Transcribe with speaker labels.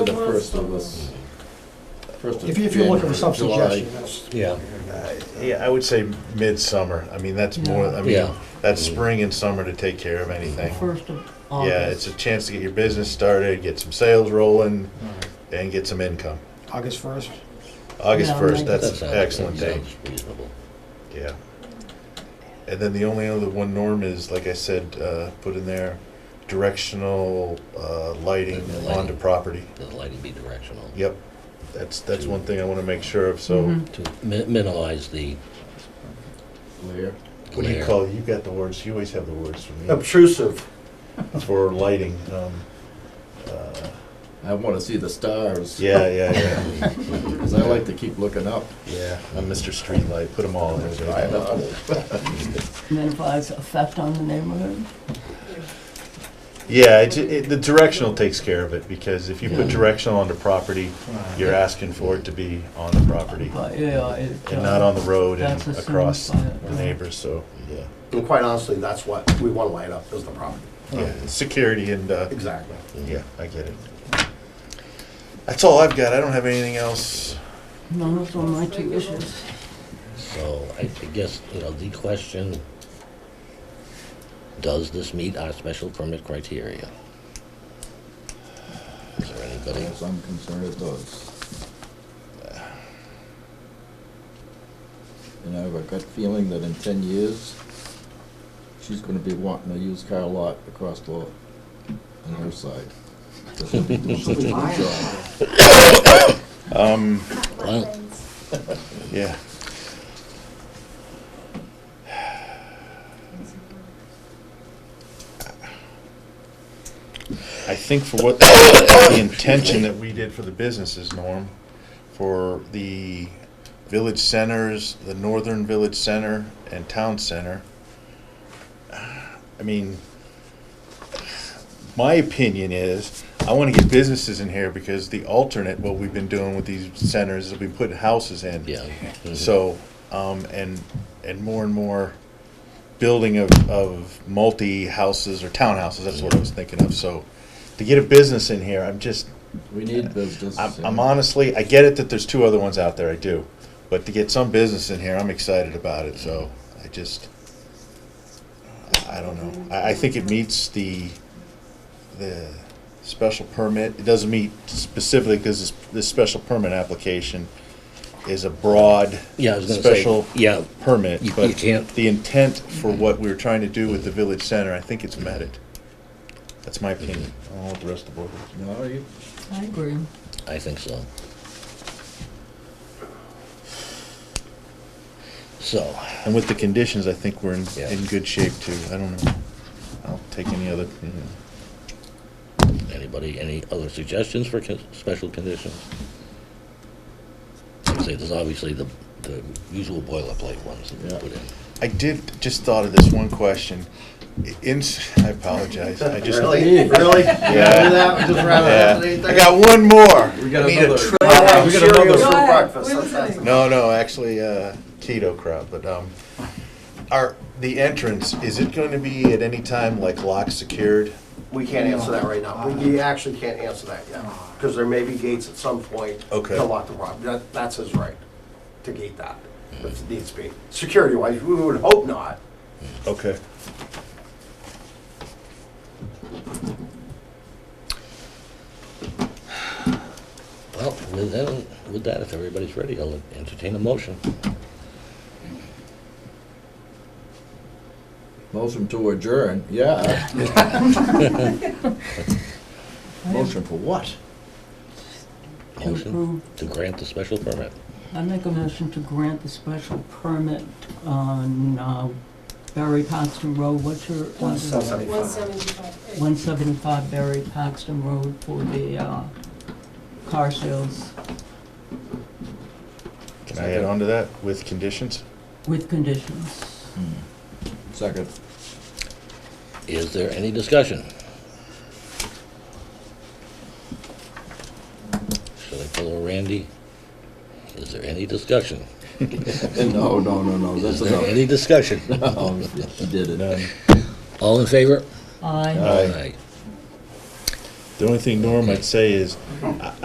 Speaker 1: The first of this. first of
Speaker 2: If you- if you're looking for some
Speaker 1: January, July.
Speaker 2: suggestion, that's,
Speaker 3: Yeah,
Speaker 4: Yeah, I would say midsummer. I mean, that's more, I mean,
Speaker 3: yeah,
Speaker 4: that's spring and summer to take care of anything.
Speaker 5: First of
Speaker 4: Yeah, it's a chance to get your business started, get some sales rolling, and get some income.
Speaker 2: August first.
Speaker 4: August
Speaker 5: Yeah,
Speaker 4: first,
Speaker 5: like-
Speaker 4: that's an excellent day, yeah. And then the only other one, Norm, is, like I said, uh, put in there, directional, uh, lighting
Speaker 3: Lighting.
Speaker 4: onto property.
Speaker 3: The lighting be directional.
Speaker 4: Yep, that's, that's one thing I wanna make sure of, so,
Speaker 5: Mhm.
Speaker 3: To mi- minimize the
Speaker 1: Layer.
Speaker 4: what do you
Speaker 3: glare.
Speaker 4: call, it? you got the words, you always have the words for me,
Speaker 6: Obtrusive.
Speaker 4: for lighting, um, uh,
Speaker 1: I want to see the stars.
Speaker 4: yeah, yeah, yeah.
Speaker 1: Because I like to keep looking up.
Speaker 4: Yeah, I'm Mr. Streetlight, put them all in there.
Speaker 1: I know.
Speaker 5: minimize effect on the neighborhood.
Speaker 4: Yeah, it, it, the directional takes care of it, because if you put
Speaker 5: Yeah.
Speaker 4: directional on the property, you're asking for it to be on the property,
Speaker 5: But yeah, it. uh,
Speaker 4: and not on the road and
Speaker 5: That's assumed
Speaker 4: across
Speaker 5: by it,
Speaker 4: the
Speaker 5: yeah.
Speaker 4: neighbors, so, yeah.
Speaker 6: And quite honestly, that's what we want to light up is the property.
Speaker 4: Yeah, security and, uh,
Speaker 6: Exactly.
Speaker 4: yeah, I get it. That's all I've got, I don't have anything else.
Speaker 5: No, those are my two issues.
Speaker 3: So I I guess, you know, the question, does this meet our special permit criteria? Is there anybody?
Speaker 1: As I'm concerned, it does. And I have a gut feeling that in ten years, she's gonna be wanting a used car lot across the, on her side. She'll be doing such a good job.
Speaker 4: Um,
Speaker 3: Well,
Speaker 4: yeah, I think for what, the intention that we did for the businesses, Norm, for the village centers, the northern village center and town center, I mean, my opinion is, I wanna get businesses in here because the alternate, what we've been doing with these centers, is we put houses in.
Speaker 3: yeah. Mm-hmm.
Speaker 4: So, um, and, and more and more building of, of multi-houses or townhouses, that's what I was thinking of, so to get a business in here, I'm just,
Speaker 1: We need business.
Speaker 4: I'm,
Speaker 1: and-
Speaker 4: I'm honestly, I get it that there's two other ones out there, I do, but to get some business in here, I'm excited about it, so I just, I I don't know, I, I think it meets the, the special permit, it doesn't meet specifically, because this, this special permit application is a broad
Speaker 3: Yeah, I was gonna say,
Speaker 4: special
Speaker 3: yeah,
Speaker 4: permit,
Speaker 3: You- you
Speaker 4: but
Speaker 3: can't-
Speaker 4: the intent for what we were trying to do with the village center, I think it's met it. That's my opinion. I don't know what the rest of the board thinks.
Speaker 1: No, you,
Speaker 5: I agree.
Speaker 3: I think so. So,
Speaker 4: And with the conditions, I think we're in,
Speaker 3: Yeah.
Speaker 4: in good shape too. I don't know. I'll take any other, you know.
Speaker 3: Anybody, any other suggestions for con- special conditions? I'd say there's obviously the, the usual boilerplate ones that we
Speaker 1: Yeah.
Speaker 3: put in.
Speaker 4: I did, just thought of this one question. I- In, I apologize. I just.
Speaker 6: Really? Really? Yeah. Do that, just rather
Speaker 4: Yeah.
Speaker 6: have anything?
Speaker 4: I got one more.
Speaker 1: we got
Speaker 4: Need a
Speaker 1: another.
Speaker 4: tr-
Speaker 6: I'll have
Speaker 1: We got
Speaker 6: cereal
Speaker 1: another.
Speaker 6: for
Speaker 5: Go ahead.
Speaker 6: breakfast.
Speaker 5: We're
Speaker 6: That's-
Speaker 5: listening.
Speaker 4: No, no, actually, uh, keto crowd, but, um, are, the entrance, is it going to be at any time like lock secured?
Speaker 6: We can't answer that right now. We we actually can't answer that yet, because there may be gates at some point.
Speaker 4: Okay.
Speaker 6: To lock the property. That, that's his right, to gate that,
Speaker 4: Mm.
Speaker 6: if it needs to be. Security wise, we would hope not.
Speaker 4: Okay.
Speaker 3: Well, with that, with that, if everybody's ready, I'll entertain a motion.
Speaker 1: Motion to adjourn, yeah. Motion for what?
Speaker 5: To
Speaker 3: Motion
Speaker 5: approve.
Speaker 3: to grant the special permit.
Speaker 5: I make a motion to grant the special permit on uh, Barry Paxton Road. What's your? uh,
Speaker 6: One seventy.
Speaker 7: One seventy-five.
Speaker 5: One seventy-five Barry Paxton Road for the uh, car sales
Speaker 4: Can I add on to that with conditions?
Speaker 5: with conditions.
Speaker 4: Mm.
Speaker 1: Second.
Speaker 3: Is there any discussion? Should I pull a Randy? Is there any discussion?
Speaker 1: No, no, no, no, that's
Speaker 3: Is there
Speaker 1: enough.
Speaker 3: any discussion?
Speaker 1: No,
Speaker 4: Um,
Speaker 1: He did it.
Speaker 3: All in favor?
Speaker 5: Aye.
Speaker 1: Aye.
Speaker 3: Aye.
Speaker 4: The only thing, Norm, I'd say is,